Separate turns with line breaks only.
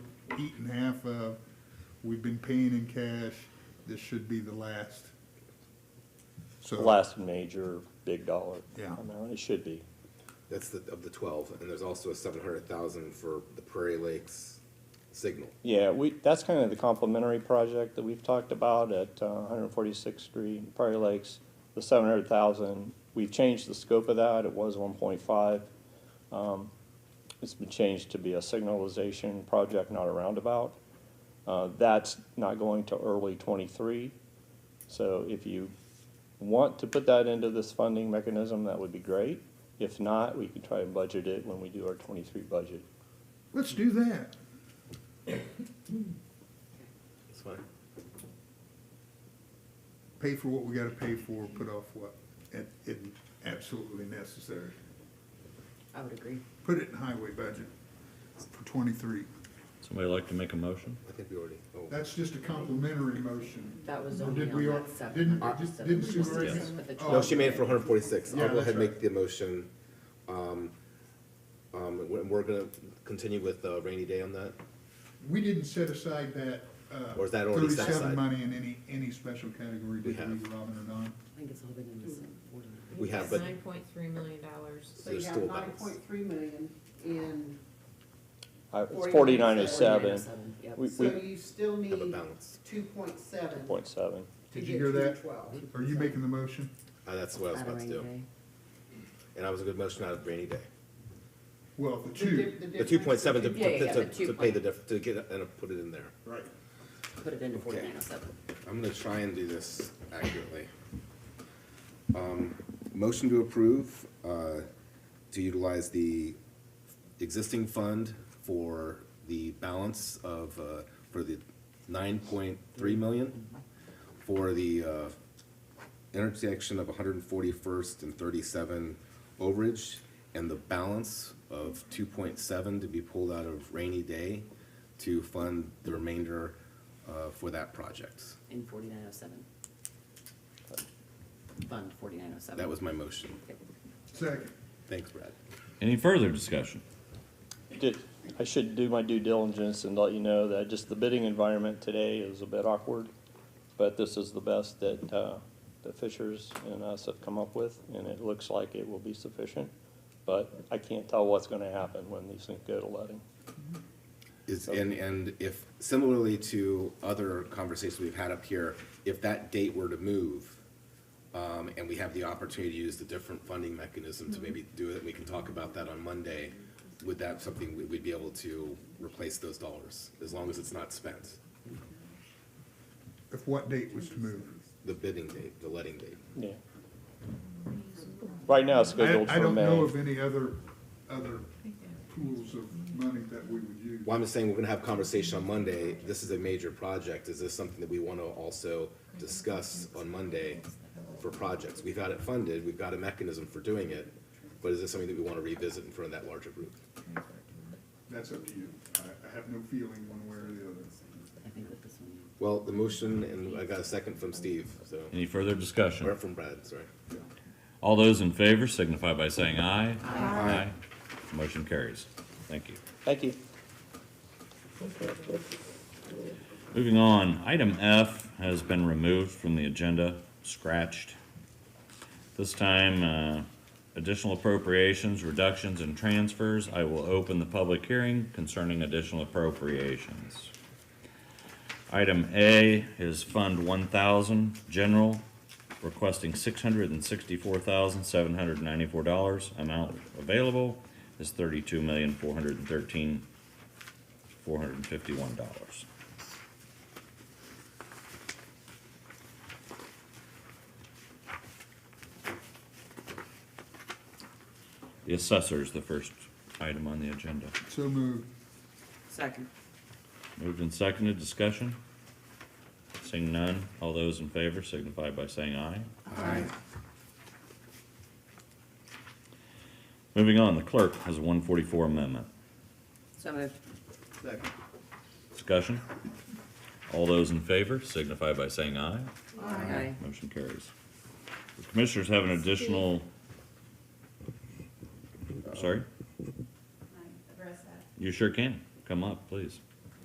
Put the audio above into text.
eaten half of, we've been paying in cash, this should be the last. So.
Last major big dollar
Yeah.
amount, it should be.
That's the, of the twelve, and there's also a seven hundred thousand for the Prairie Lakes signal.
Yeah, we, that's kind of the complementary project that we've talked about at uh, one hundred forty-sixth Street, and Prairie Lakes, the seven hundred thousand. We've changed the scope of that, it was one point five. Um, It's been changed to be a signalization project, not a roundabout. Uh, That's not going to early twenty-three. So if you want to put that into this funding mechanism, that would be great. If not, we can try and budget it when we do our twenty-three budget.
Let's do that.
That's fine.
Pay for what we gotta pay for, put off what, it, it absolutely necessary.
I would agree.
Put it in highway budget for twenty-three.
Somebody like to make a motion?
I think we already, oh,
That's just a complimentary motion.
That was
Or
only
did
on
we
that
al-
seven
Didn't,
hundred,
just-
so
didn't
it's
she
just
already?
for the
oh,
twelve.
no, she made it for hundred forty-six,
Yeah,
I'll go ahead
that's
and make
right.
the motion. Um, um, and we're, we're gonna continue with uh, rainy day on that,
We didn't set aside that, uh,
Or is that already set
thirty-seven
aside?
money in any, any special category, did we,
have.
Robin or Don?
I think it's all been in the same order.
we have, but
Nine point three million dollars.
So
So you
there's
have
still a
nine
balance.
point three million in,
Uh, It's
4907.
forty-nine oh seven,
4907, yep.
We-
so you still
have a
need
balance,
two point seven
point seven.
to
Did
get
you hear
to the
that? Hmm?
twelve.
Are you making the motion?
uh, that's what I was
Out of
about to
rainy
do,
day.
and I was a good motion out of rainy day.
Well, the
The
two.
dif- the
The two
difference
point seven to,
between-
Yeah, yeah, yeah,
to,
the
to, to pay the diff, to get, it and put it in there.
Right.
Put it into
Okay.
forty-nine oh seven.
I'm gonna try and do this accurately. Um, Motion to approve, uh, to utilize the existing fund for the balance of, uh, for the nine point three million, for the uh, intersection of one hundred and forty-first and thirty-seven overage, and the balance of two point seven to be pulled out of rainy day to fund the remainder uh, for that project.
In forty-nine oh seven. Fund forty-nine oh seven.
That was my motion.
Second.
Thanks, Brad.
Any further discussion?
Did, I should do my due diligence and let you know that just the bidding environment today is a bit awkward, but this is the best that, uh, the Fishers and us have come up with, and it looks like it will be sufficient. But I can't tell what's gonna happen when these things go to letting.
Is, and, and if, similarly to other conversations we've had up here, if that date were to move, um, and we have the opportunity to use the different funding mechanism to maybe do it, we can talk about that on Monday. Would that something we- we'd be able to replace those dollars, as long as it's not spent?
If what date was to move?
The bidding date, the letting date.
Yeah. Right now it's
I,
scheduled
I
for
don't know
May.
of any other, other pools of money that we would use.
Well, I'm just saying, we're gonna have a conversation on Monday, this is a major project, is this something that we wanna also discuss on Monday for projects? We've got it funded, we've got a mechanism for doing it, but is this something that we wanna revisit in front of that larger group?
That's up to you. I, I have no feeling one way or the other.
I think with this one.
Well, the motion, and I got a second from Steve, so,
Any further
or
discussion?
from Brad, sorry.
All those in favor signify by saying aye. Aye. Motion carries. Thank you.
Thank you.
Moving on, item F has been removed from the agenda, scratched. This time, uh, additional appropriations, reductions, and transfers. I will open the public hearing concerning additional appropriations. Item A is Fund one thousand, general, requesting six hundred and sixty-four thousand, seven hundred and ninety-four dollars. Amount available is thirty-two million, four hundred and thirteen, four hundred and fifty-one dollars. The assessor is the first item on the agenda.
So moved.
Second.
Moved and seconded, discussion? Seeing none, all those in favor signify by saying aye.
Aye.
Moving on, the clerk has a one forty-four amendment.
So moved.
Second.
Discussion? All those in favor signify by saying aye.
Aye.
Motion carries. The commissioners have an additional. Sorry,
Address that.
you sure can. Come up, please.